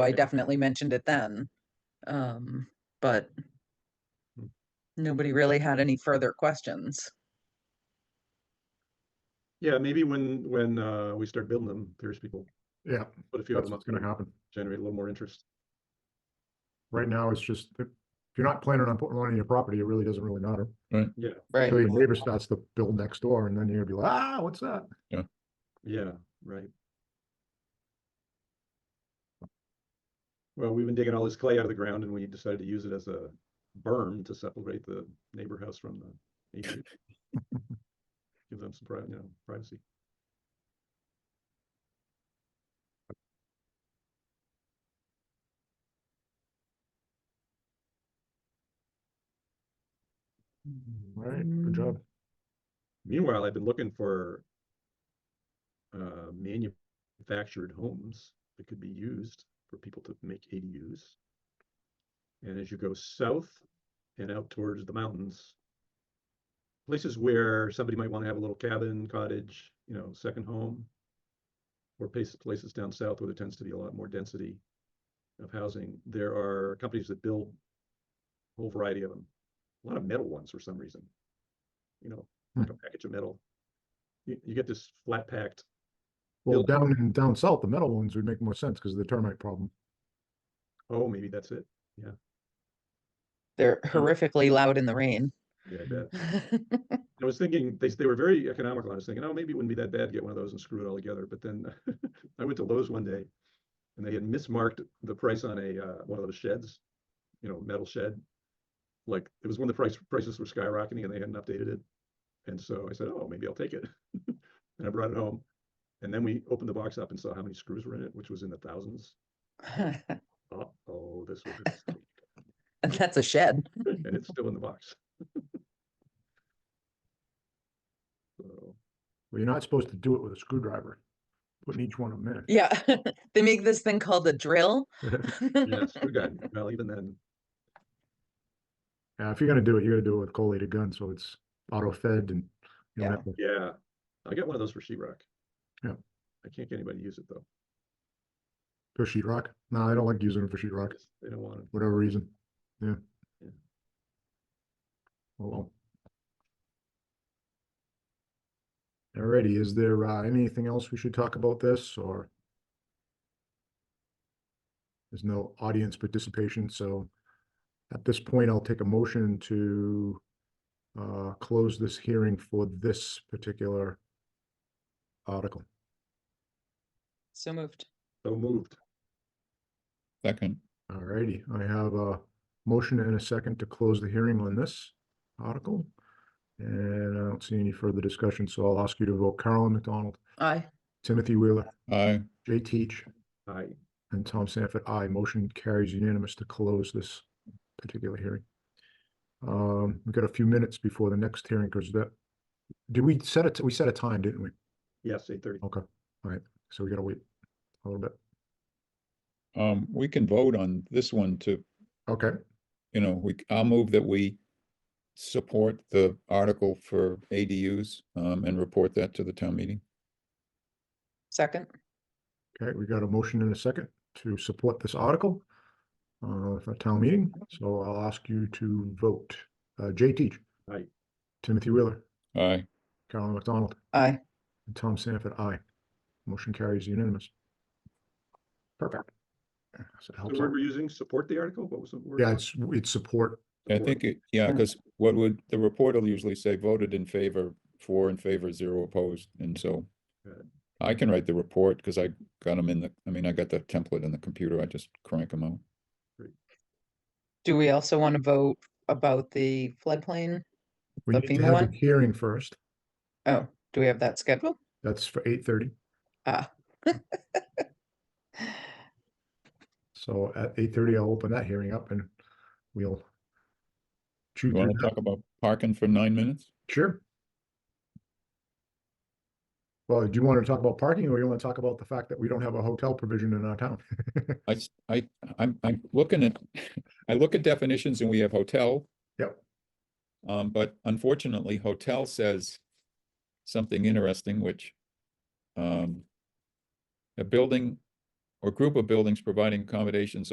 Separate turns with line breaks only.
I
Okay.
definitely mentioned it then. Um, but
Hmm.
nobody really had any further questions.
Yeah, maybe when, when, uh, we start building them, there's people,
Yeah,
but if you have
that's
them up,
what's gonna happen.
generate a little more interest.
Right now, it's just, that if you're not planning on putting one on your property, it really doesn't really matter.
Right.
Until your neighbor starts to build next door and then you're gonna be like, ah, what's that?
Yeah, right. Well, we've been digging all this clay out of the ground and we decided to use it as a berm to separate the neighbor house from the atrium. Give them some pri- you know, privacy.
Mm-hmm.
All right, good job.
Meanwhile, I've been looking for uh, manufactured homes that could be used for people to make ADUs. And as you go south and out towards the mountains, places where somebody might want to have a little cabin, cottage, you know, second home, or places, places down south where there tends to be a lot more density of housing, there are companies that build a whole variety of them. A lot of metal ones for some reason. You know, like a package of metal. You, you get this flat packed,
Well,
Build-
down in, down south, the metal ones would make more sense because of the termite problem.
oh, maybe that's it.
They're horrifically loud in the rain.
Yeah, I bet. I was thinking, they, s- they were very economical. I was thinking, oh, maybe it wouldn't be that bad to get one of those and screw it all together. But then I went to Lowe's one day and they had mismarked the price on a, uh, one of those sheds, you know, metal shed. Like it was when the price, prices were skyrocketing and they hadn't updated it. And so I said, oh, maybe I'll take it. And I brought it home. And then we opened the box up and saw how many screws were in it, which was in the thousands. Uh-oh, this was a mistake.
And that's a shed.
and it's still in the box. So,
Well, you're not supposed to do it with a screwdriver. Putting each one of them in.
Yeah, they make this thing called a drill.
yeah, screw gun. Well, even then,
Yeah, if you're gonna do it, you're gonna do it with collated gun, so it's auto fed and you don't
Yeah.
have to,
yeah, I got one of those for sheetrock.
Yeah.
I can't get anybody to use it though.
for sheetrock. No, I don't like using it for sheetrock.
Just- They don't want it.
whatever reason. Yeah.
Yeah.
Oh, Well. Alrighty, is there uh, anything else we should talk about this or? There's no audience participation, so at this point, I'll take a motion to uh, close this hearing for this particular article.
So moved.
So moved.
Second,
Alrighty, I have a motion and a second to close the hearing on this article. And I don't see any further discussion, so I'll ask you to vote Carolyn McDonald,
Aye.
Timothy Wheeler,
aye,
Jay Teach,
I,
and Tom Sanford. Aye. Motion carries unanimous to close this particular hearing. Um, we've got a few minutes before the next hearing, because that, did we set it, we set a time, didn't we?
yes, eight thirty.
Okay, alright, so we gotta wait a little bit.
um, we can vote on this one to,
Okay,
you know, we, I'll move that we support the article for ADUs, um, and report that to the town meeting.
Second.
Okay, we got a motion and a second to support this article uh, for town meeting, so I'll ask you to vote. Uh, Jay Teach.
Aye.
Timothy Wheeler,
Aye,
Carolyn McDonald,
Aye.
and Tom Sanford, aye. Motion carries unanimous. Perfect. So
The
it helps
word
out.
we're using, support the article? What was the word?
Yeah, it's, it's support,
I
Support.
think, it- yeah, because what would, the report will usually say voted in favor, four in favor, zero opposed, and so
Good.
I can write the report because I got them in the, I mean, I got the template in the computer, I just crank them out.
Do we also want to vote about the floodplain?
we
The
need to
FEMA
have
one?
a hearing first,
Oh, do we have that scheduled?
that's for eight thirty.
Ah.
So at eight thirty, I'll open that hearing up and we'll chew
You
through
want to
that.
talk about parking for nine minutes?
Sure. Well, do you want to talk about parking or you want to talk about the fact that we don't have a hotel provision in our town?
I, s- I, am I'm looking at, I look at definitions and we have hotel.
Yep.
Um, but unfortunately, hotel says something interesting, which, um, a building or group of buildings providing accommodations